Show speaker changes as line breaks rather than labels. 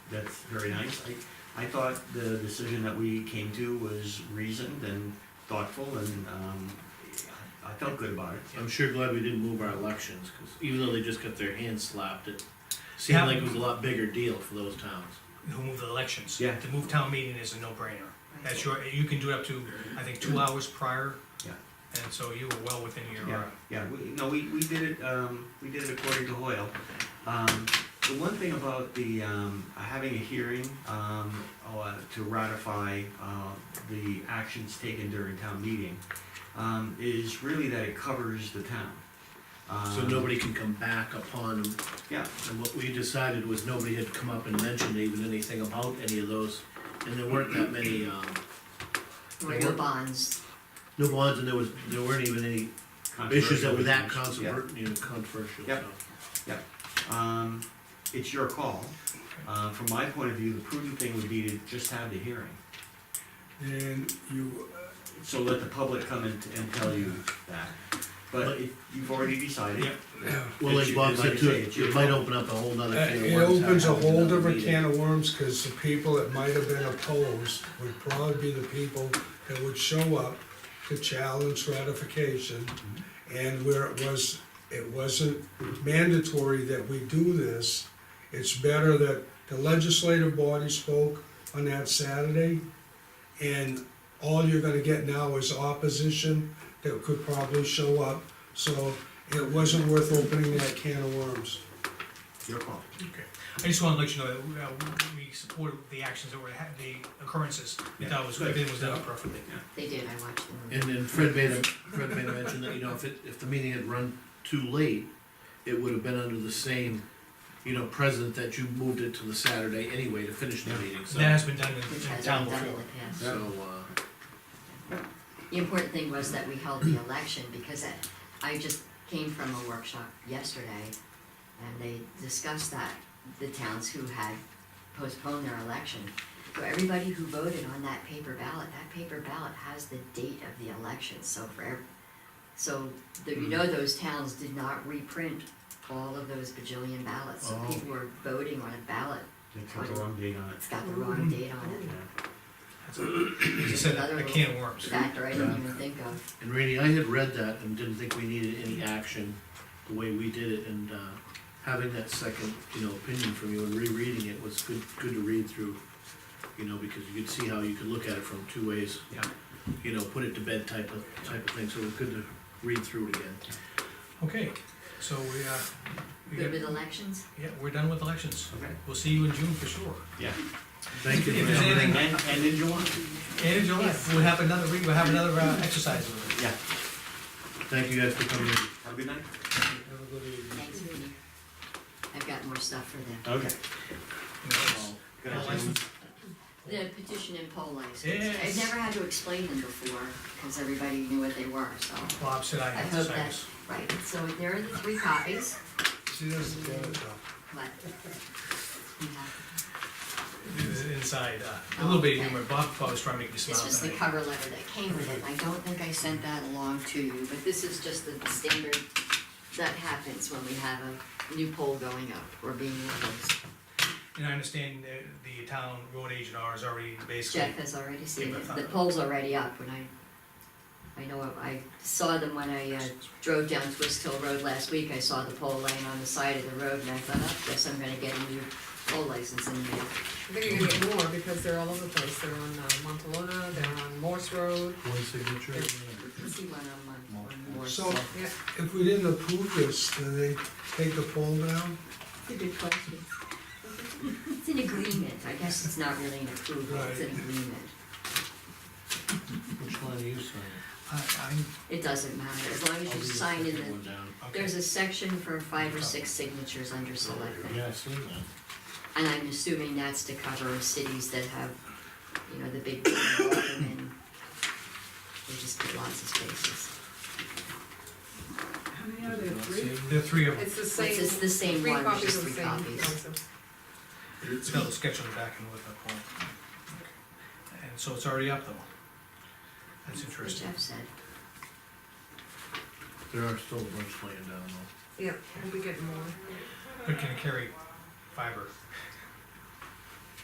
that's very nice. I, I thought the decision that we came to was reasoned and thoughtful, and, um, I felt good about it.
I'm sure glad we didn't move our elections, because even though they just got their hands slapped, it seemed like it was a lot bigger deal for those towns.
who move the elections.
Yeah.
To move town meeting is a no-brainer. That's your, you can do it up to, I think, two hours prior.
Yeah.
And so you were well within your,
Yeah,
uh,
yeah, we, no, we, we did it, um, we did it according to Hoyle. Um, the one thing about the, um, having a hearing, um, uh, to ratify, uh, the actions taken during town meeting, um, is really that it covers the town.
So
Um,
nobody can come back upon them.
Yeah.
And what we decided was nobody had come up and mentioned even anything about any of those, and there weren't that many, um,
Or your bonds,
no bonds, and there was, there weren't even any issues that were that controversial, you know, controversial,
Yeah.
so.
Um, it's your call. Uh, from my point of view, the prudent thing would be to just have the hearing.
And you,
So let the public come and, and tell you that. But it- you've already decided.
Yeah.
It's
Well, like
your-
Bob
like
said
you
too,
say, it's
it
your
it might
call.
open up a whole nother
uh,
can of worms.
it opens a
having
whole
another
different
meeting.
can of worms, cause the people that might have been opposed would probably be the people that would show up to challenge ratification. And where it was, it wasn't mandatory that we do this, it's better that the legislative body spoke on that Saturday. And all you're gonna get now is opposition that could probably show up, so it wasn't worth opening that can of worms.
Your call.
okay. I just wanna let you know that we, uh, we supported the actions that were, ha- the occurrences. We thought it was,
Yeah, good.
everything was done perfectly.
they did, I watched them.
And then Fred made a, Fred made a mention that, you know, if it, if the meeting had run too late, it would have been under the same, you know, precedent that you moved it to the Saturday anyway to finish the meeting, so.
That has been done in,
Which
in
has
town
been done in
before.
the past.
So, uh,
The important thing was that we held the election because I- I just came from a workshop yesterday and they discussed that, the towns who had postponed their election. So everybody who voted on that paper ballot, that paper ballot has the date of the election, so for, ev- so that you know those towns did not reprint all of those bajillion ballots, so
Oh.
people were voting on a ballot,
It's got the wrong date on it.
it's got the wrong date on it.
Yeah.
As I said, a can of worms.
Factor I didn't even think of.
and Randy, I had read that and didn't think we needed any action the way we did it, and, uh, having that second, you know, opinion from you and rereading it was good, good to read through, you know, because you could see how you could look at it from two ways.
Yeah.
You know, put it to bed type of, type of thing, so it was good to read through it again.
Okay, so we, uh, we
Good with
got-
elections?
yeah, we're done with elections.
Okay.
We'll see you in June for sure.
Yeah.
Thank you.
If
for
there's
coming in.
anything-
And, and in July.
And in July,
Yes.
we'll have another, re- we'll have another uh, exercise with it.
Yeah.
Thank you guys for coming in.
Have a good night.
Have a good evening.
Thanks, Vinnie. I've got more stuff for them.
Uh,
Okay.
Poll license.
The petition and poll license.
Yes.
I've never had to explain them before, because everybody knew what they were, so.
Bob said I
I
had to
hope
say
that,
this.
right, so there are the three copies,
She doesn't get it though.
but. yeah.
This is Inside, uh, a little bit of
Oh, Okay.
humor, Bob Bob was trying to make me smile.
This was the
tonight.
cover letter that came with it, I don't think I sent that along to you, but this is just the standard that happens when we have a new poll going up or being released.
And I understand uh, the town road agent R is already basically,
Jeff has already seen
Yeah,
it,
but-
the poll's already up, when I, I know, I saw them when I uh, drove down Twist Hill Road last week, I saw the poll laying on the side of the road, and I thought, oh, guess I'm gonna get a new poll license in the mail.
I think you're gonna get more because they're all over the place. They're on uh, Montalona, they're on Morse Road.
One signature.
I See one on Mon- on Morse.
So
Yeah,
if we didn't approve this, then they take the poll down?
It's a good question. It's an agreement, I guess it's not really an approval, it's an
Right.
agreement.
Which line are you signing?
I, I,
It doesn't matter, as long as
I'll
you
leave the
sign in
second
the,
one down.
okay. Oh,
there's a section for five or six signatures under selectmen.
Yeah, I see that.
And I'm assuming that's to cover cities that have, you know, the big, and they just get lots of spaces.
how many are there, three?
there are three of them,
It's the
It's just
same,
the same
three
one, it's
copies
just
of the
three
same
copies.
license.
it's got a little sketch on the back and with the poll. Okay. And so it's already up though. That's
What
interesting.
Jeff said,
There are still a bunch laying down though.
Yeah, we'll be getting more.
But can it carry fiber?